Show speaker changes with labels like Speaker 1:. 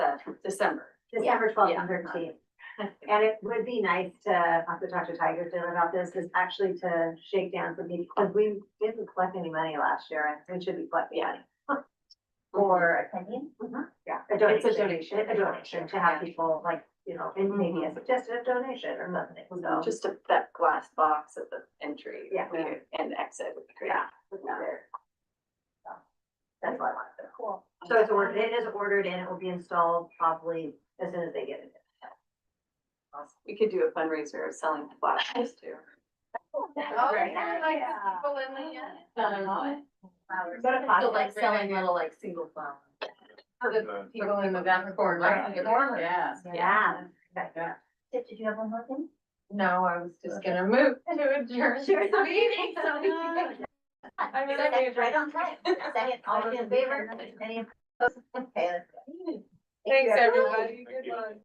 Speaker 1: December.
Speaker 2: December twelfth and
Speaker 1: Yeah.
Speaker 2: thirteenth. And it would be nice to, I have to talk to Tiger Taylor about this, is actually to shake down some people, because we didn't collect any money last year, and we should be collecting money.
Speaker 3: Mm-hmm.
Speaker 4: Or opinion?
Speaker 2: Yeah, a
Speaker 1: It's a
Speaker 2: donation,
Speaker 1: donation. Mm-hmm.
Speaker 2: a donation to have people like, you know, and maybe a suggested donation or something, so.
Speaker 1: Just a, that glass box at the entry.
Speaker 2: Yeah.
Speaker 1: would- And exit would be great.
Speaker 2: Yeah. would be there. So, That's what I wanted to.
Speaker 4: Cool.
Speaker 2: So it's ordered, it is ordered and it will be installed probably as soon as they get it.
Speaker 1: We could do a fundraiser of selling glasses too.
Speaker 4: Oh,
Speaker 1: Right.
Speaker 4: yeah, like people in the end.
Speaker 2: Go to
Speaker 3: So like
Speaker 2: podcast.
Speaker 3: selling little like single flowers.
Speaker 5: Uh,
Speaker 3: People in the back corner. like, Yeah.
Speaker 2: Yeah.
Speaker 3: Yeah.
Speaker 4: Tip, Did you have one more thing?
Speaker 3: No, I was just gonna move to adjourn.
Speaker 4: Sure, it's a meeting, so we can
Speaker 3: Uh, I mean, I
Speaker 4: Second,
Speaker 3: mean-
Speaker 4: Right on time. Second, all those in favor, any opposed? Okay, let's go.
Speaker 3: Thanks,
Speaker 4: everyone.
Speaker 3: everybody.
Speaker 5: Thank
Speaker 3: Good
Speaker 5: you.
Speaker 3: one.